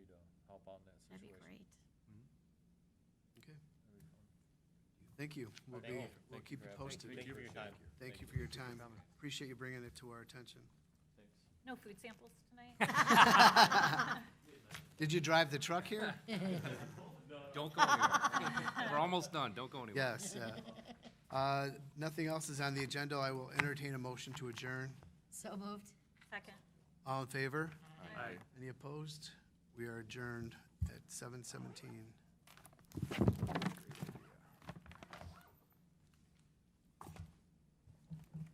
That'd be situation. great. Okay. Thank you. We'll Oh, Thank you. be, we'll Thank you keep for you having me. posted. Thank you for your time. Thank you for your time. Appreciate you bringing it to our attention. No food samples tonight? Did you drive the truck here? Don't go anywhere. We're almost done. Don't go anywhere. Yes. uh, uh, Nothing else is on the agenda. I will entertain a motion to adjourn. So moved. Second. All in favor? Any opposed? We are adjourned at 7:17.